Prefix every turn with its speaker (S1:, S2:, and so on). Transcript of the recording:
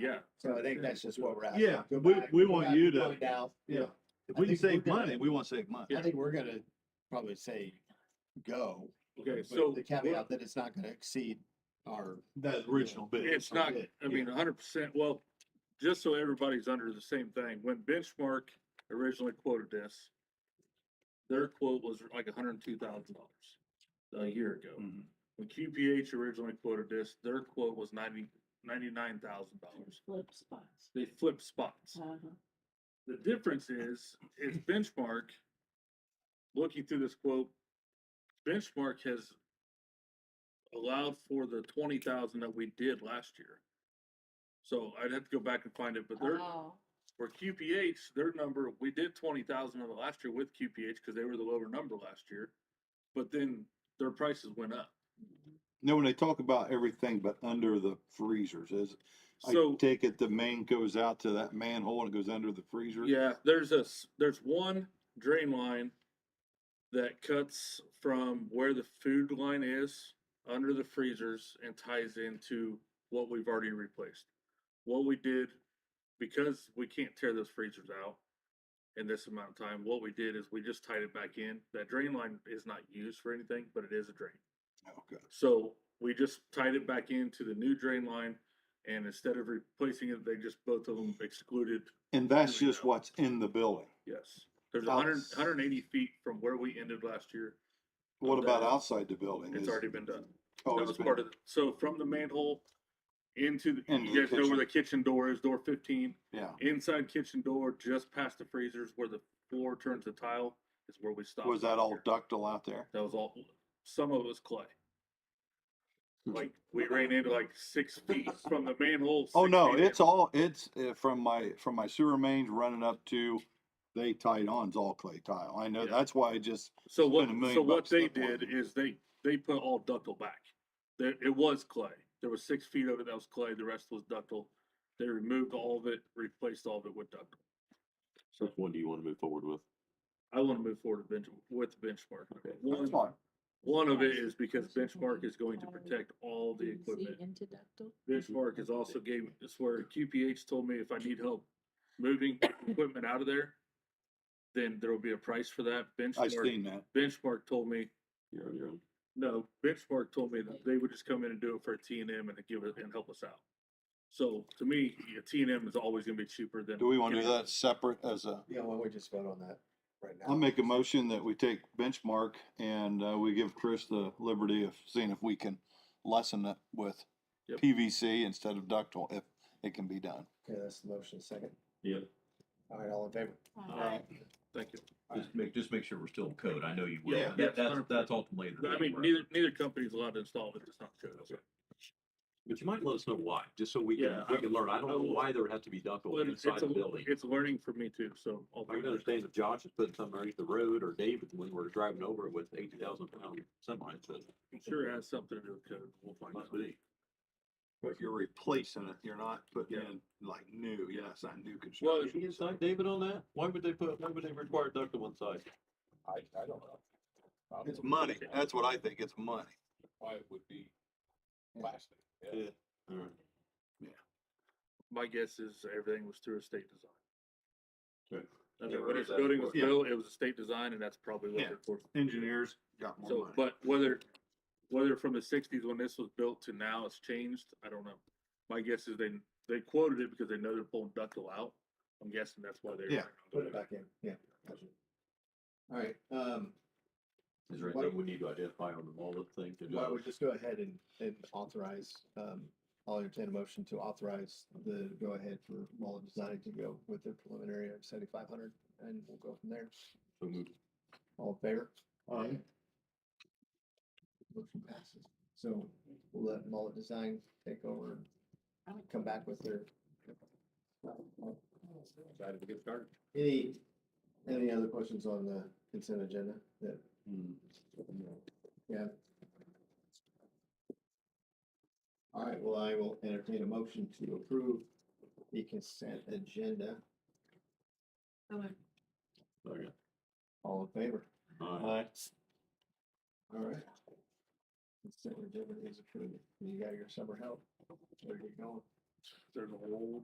S1: Yeah,
S2: So I think that's just what we're at.
S3: Yeah, we- we want you to-
S2: Now,
S3: Yeah, if
S2: I
S3: we can
S2: think we're
S3: save
S2: gonna-
S3: money, we wanna save money.
S2: I think we're gonna probably say go.
S1: okay,
S2: with
S1: so
S2: The caveat that it's not gonna exceed our.
S3: That original bid.
S1: it's not, I mean,
S2: Yeah.
S1: hundred percent, well, just so everybody's under the same thing, when Benchmark originally quoted this, their quote was like hundred and two thousand dollars a year ago.
S2: Mm-hmm.
S3: Mhm.
S1: When QPH originally quoted this, their quote was ninety, ninety-nine thousand dollars.
S4: Flip spots.
S1: They flipped spots.
S4: Uh-huh.
S1: The difference is, it's benchmark. Looking through this quote, benchmark has allowed for the twenty thousand that we did last year. So I'd have to go back and find it, but their,
S4: Oh,
S1: for QPH, their number, we did twenty thousand of it last year with QPH because they were the lower number last year. But then their prices went up.
S3: Now, when they talk about everything but under the freezers, is, I
S1: So
S3: take it the main goes out to that manhole and it goes under the freezer?
S1: Yeah, there's a s- there's one drain line that cuts from where the food line is under the freezers and ties into what we've already replaced. What we did because we can't tear those freezers out in this amount of time, what we did is we just tied it back in. That drain line is not used for anything, but it is a drain.
S3: Okay,
S1: So we just tied it back into the new drain line and instead of replacing it, they just both of them excluded
S3: and that's
S1: Here we
S3: just
S1: go.
S3: what's in the building.
S1: Yes, there's a hundred,
S3: Outs-
S1: hundred and eighty feet from where we ended last year.
S3: What
S1: Of
S3: about
S1: that.
S3: outside the building?
S1: It's
S3: Is-
S1: already been done.
S3: oh,
S1: That
S3: it's
S1: was
S3: been-
S1: part of, the- so from the manhole into, the-
S3: Into
S1: you
S3: the
S1: guys know where the kitchen door is, door fifteen,
S3: Yeah,
S1: inside kitchen door, just past the freezers where the floor turns to tile is where we stopped.
S3: was that
S1: last
S3: all
S1: year.
S3: ductile out there?
S1: That was all, some of it was clay.
S3: Hmm.
S1: Like, we ran into like six feet from the manhole.
S3: Oh,
S1: six
S3: no,
S1: feet in.
S3: it's all, it's uh, from my, from my sewer mains running up to, they tied on, it's all clay tile. I know,
S1: Yeah.
S3: that's why I just,
S1: So
S3: Spend
S1: what,
S3: a million
S1: so what
S3: bucks
S1: they
S3: that one.
S1: did is they, they put all ductile back. There, it was clay. There was six feet of it that was clay, the rest was ductile. They removed all of it, replaced all of it with ductile.
S5: Which one do you want to move forward with?
S1: I wanna move forward to bench, with benchmark.
S5: Okay.
S3: that's
S1: One,
S3: fine.
S1: one of it is because benchmark is going to protect all the
S4: DNC
S1: equipment.
S4: Into ductile.
S1: Benchmark is also gave, it's where QPH told me if I need help moving equipment out of there, then there will be a price for that.
S3: I
S1: Benchmark,
S3: seen that.
S1: benchmark told me
S5: You're on your own.
S1: No, Benchmark told me that they would just come in and do it for T and M and give it and help us out. So to me, T and M is always gonna be cheaper than.
S3: Do we want to do that separate as a?
S2: Yeah, well, we just vote on that right now.
S3: I'll make a motion that we take benchmark and uh, we give Chris the liberty of seeing if we can lessen it with
S1: Yep.
S3: PVC instead of ductile, if it can be done.
S2: Okay, that's the motion, second.
S5: Yeah,
S2: All right, all in favor?
S1: Um,
S4: Alright.
S1: Uh, Thank you.
S5: just make, just make sure we're still in code. I know you will.
S1: Yeah,
S5: That-
S1: yeah,
S5: That's,
S1: 100%.
S5: that's ultimately. the
S1: I
S5: main
S1: mean,
S5: work.
S1: neither, neither company's allowed to install it, it's not good.
S5: But you might let us know why, just so we can,
S1: Yeah,
S5: we can learn. I don't
S1: I
S5: know
S1: will.
S5: why there would have to be ductile
S1: But it's,
S5: inside
S1: it's,
S5: the
S1: a-
S5: building.
S1: it's learning for me too, so. I'll
S5: I can understand if Josh is putting something underneath the road or David, when we're driving over it with eighty thousand pound semi, it's, it
S1: I'm Sure it has something to do with code, we'll find
S5: must
S1: out.
S5: be.
S3: But you're replacing it, you're not putting
S1: Yeah.
S3: like new, yeah, it's not new
S1: Well,
S5: Did you inside David on that? Why would they put, why would they require ductile inside?
S6: I, I don't know. I
S3: It's
S6: don't know
S3: money, that's what I think, it's money.
S6: Why it would be plastic.
S5: Yeah. All right.
S1: My guess is everything was through a state design.
S5: Right.
S1: I
S5: Yeah,
S1: mean,
S5: right,
S1: when this
S5: that's
S1: building was
S5: where-
S1: built, it was a state design and that's probably what
S3: Yeah.
S1: they're for.
S3: Engineers got
S1: So, but whether, whether from the sixties when this was built to now it's changed, I don't know. My guess is they, they quoted it because they know they're pulling ductile out. I'm guessing that's why they.
S3: Yeah.
S2: Put it back in, yeah. gotcha. All right, um,
S5: Is there
S2: Why-
S5: anything we need to identify on the wallet thing to
S2: well, I
S5: do?
S2: would just go ahead and, and authorize, um, I'll entertain a motion to authorize the go ahead for Mullen Design to go with their preliminary of seventy-five hundred and we'll go from there.
S5: So move
S2: All in favor? Aye. Motion passes. So we'll let Mullet Design take over, and come back with their.
S6: Excited to get started.
S2: Any, any other questions on the consent agenda that?
S5: Hmm.
S2: Yeah. All right, well, I will entertain a motion to approve the consent agenda.
S5: Okay.
S2: All in favor?
S5: All right.
S2: All right. Consent agenda is approved. You got your summer help. Where are you going?
S1: there's a whole